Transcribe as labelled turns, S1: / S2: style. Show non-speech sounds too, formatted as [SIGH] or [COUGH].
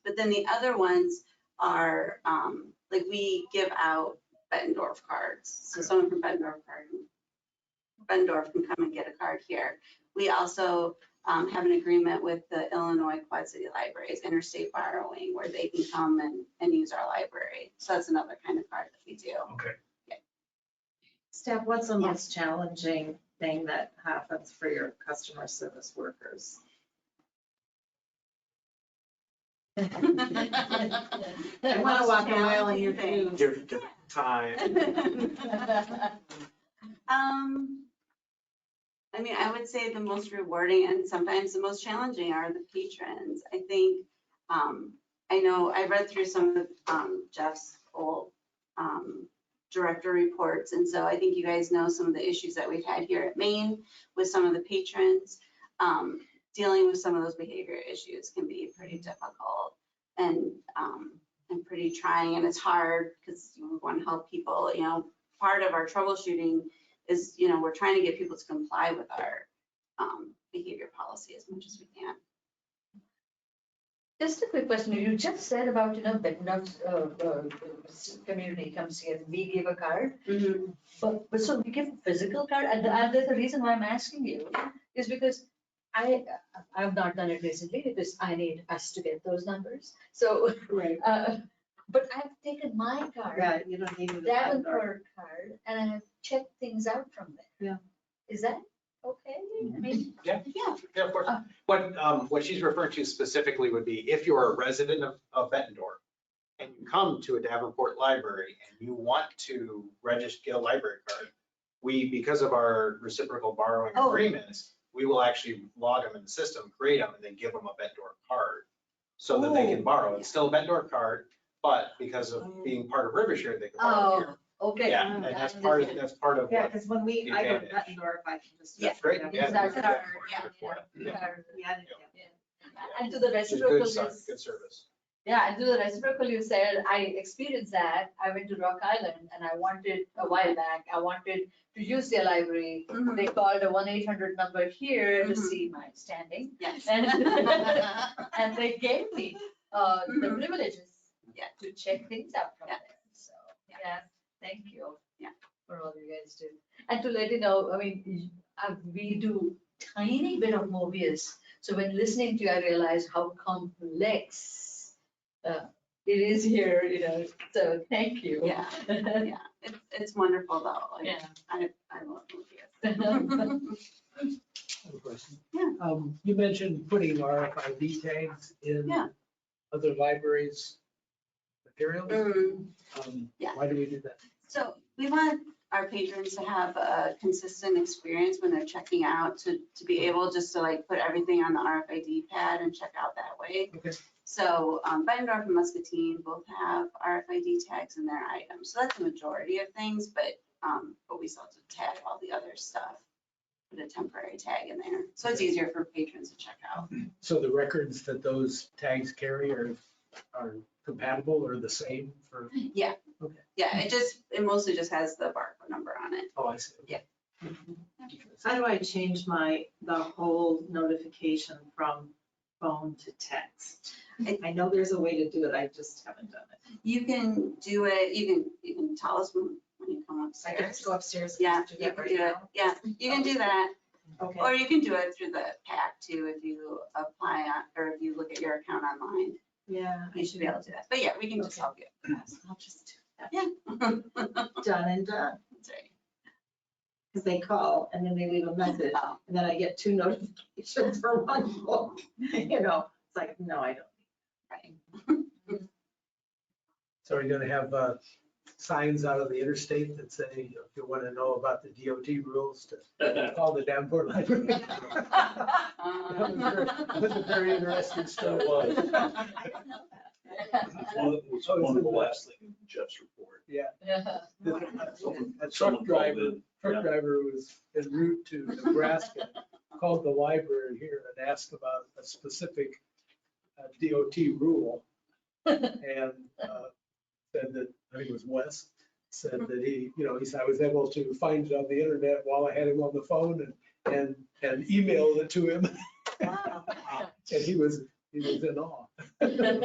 S1: But then the other ones are, um, like we give out Bettendorf cards. So someone from Bettendorf card, Bettendorf can come and get a card here. We also, um, have an agreement with the Illinois Quad City Libraries, Interstate Borrowing, where they can come and, and use our library. So that's another kind of card that we do.
S2: Okay,
S3: Steph, what's the
S1: Yeah.
S3: most challenging thing that happens for your customer service
S1: [LAUGHS]
S3: workers?
S1: [LAUGHS]
S3: I wanna walk a mile in your shoes.
S4: Give, give it time.
S1: [LAUGHS] Um, I mean, I would say the most rewarding and sometimes the most challenging are the patrons. I think, um, I know I read through some of um, Jeff's old um, director reports, and so I think you guys know some of the issues that we've had here at Maine with some of the patrons. Um, dealing with some of those behavior issues can be pretty difficult and um, and pretty trying, and it's hard because we want to help people. You know, part of our troubleshooting is, you know, we're trying to get people to comply with our um, behavior policy as much as we can.
S5: Just a quick question. You just said about, you know, that enough, uh, uh, community comes here, we give a card. But, but so we give a physical card, and, the- and the reason why I'm asking you is because I, I've not done it recently because I need us to get those numbers. So,
S3: Right.
S5: uh, but I've taken my card,
S3: Yeah, you don't need it.
S5: Davenport card, and I've checked things out from there.
S3: Yeah.
S5: Is that okay? I mean,
S1: Yeah,
S4: Yeah, of course.
S5: Oh.
S4: What, um, what she's referring to specifically would be if you're a resident of, of Bettendorf and you come to a Davenport library and you want to register, get a library card, we, because of our reciprocal borrowing
S5: Oh.
S4: agreements, we will actually log them in the system, create them, and then give them a Bettendorf card so that they can borrow. It's still a Bettendorf card, but because of being part of Rivershare, they can borrow here.
S5: Mm. Oh, okay.
S4: Yeah, and that's part of, that's part of
S3: Yeah,
S4: what.
S3: because when we, I go to
S4: Advantage.
S3: Bettendorf, I can just.
S4: That's great. Yeah,
S5: That's
S4: good
S5: our-
S4: for it,
S1: yeah,
S4: good for it.
S5: Yeah. Card.
S3: Yeah.
S5: And to the
S4: It's a
S5: reciprocal.
S4: good, ser-
S5: is-
S4: good service.
S5: Yeah, and to the reciprocal, you said, I experienced that, I went to Rock Island and I wanted, a while back, I wanted to use their library.
S1: Mhm.
S5: They called a one eight hundred number here to
S1: Mhm.
S5: see my standing,
S1: yes.
S5: And- and they gave me, uh, the
S1: Mhm.
S5: privileges.
S1: Yeah.
S5: To check things out from
S1: Yeah.
S5: there, so,
S1: Yeah.
S5: Mm-hmm. yeah, thank you.
S1: Yeah.
S5: For all you guys do, and to let you know, I mean, y- uh, we do tiny bit of Mobius, so when listening to you, I realize how complex uh, it is here, you know, so thank you.
S1: [LAUGHS] Yeah,
S5: [LAUGHS]
S1: yeah. It's, it's wonderful though. Like,
S5: Yeah.
S1: I, I love
S5: [LAUGHS]
S1: [LAUGHS] Lucas.
S6: Have a question.
S1: Yeah.
S6: Um, you mentioned putting RFID tags in
S1: Yeah.
S6: other libraries' materials.
S1: Mm.
S6: Um,
S1: yeah.
S6: Why do we do that?
S1: So we want our patrons to have a consistent experience when they're checking out, to, to be able just to like put everything on the RFID pad and check out that way.
S6: Okay.
S1: So um, Bettendorf and Muscatine both have RFID tags in their items. So that's the majority of things, but, um, but we still have to tag all the other stuff. Put a temporary tag in there. So it's easier for patrons to check out.
S6: So the records that those tags carry are, are compatible or the same for,
S1: Yeah, it just, it mostly just has the barcode number on it.
S6: oh, I see.
S1: Yeah.
S3: How do I change my, the whole notification from phone to text?
S1: I-
S3: I know there's a way to do it, I just haven't done it.
S1: You can do it, you can, you can tell us when when you come
S3: I can
S1: upstairs.
S3: just go upstairs
S1: Yeah,
S3: and do
S1: you
S3: that
S1: can
S3: right
S1: do it.
S3: now.
S1: Yeah, you can do that.
S3: Okay.
S1: Or you can do it through the PAC too, if you apply on, or if you look at your account online,
S3: Yeah. I
S1: you should be able to do that. But yeah, we can just
S3: Okay.
S1: help you.
S3: I'll just do
S1: Yeah. [LAUGHS] That's
S3: that. Done and done,
S1: right.
S3: because they call and then they leave a message,
S1: Oh,
S3: and then I get two [LAUGHS] notifications for one book, [LAUGHS] you know, it's like, no, I don't.
S1: right.
S6: So are you gonna have, uh, signs out of the interstate that say, if you wanna know about the DOT rules to call the Davenport Library? [LAUGHS] That
S1: Um,
S6: was very- that was a very
S1: [LAUGHS]
S6: interesting story.
S3: I don't know that.
S7: One, was one of the last things in Jeff's report.
S6: A truck
S7: Someone called
S6: driver
S7: in,
S6: truck driver was en route to Nebraska, called the library here and asked about a specific uh, DOT rule.
S5: [LAUGHS]
S6: And uh, said that, I think it was Wes, said that he, you know, he said, I was able to find it on the internet while I had him on the phone and, and, [LAUGHS] and emailed it to him. And he was, he was in awe. [LAUGHS]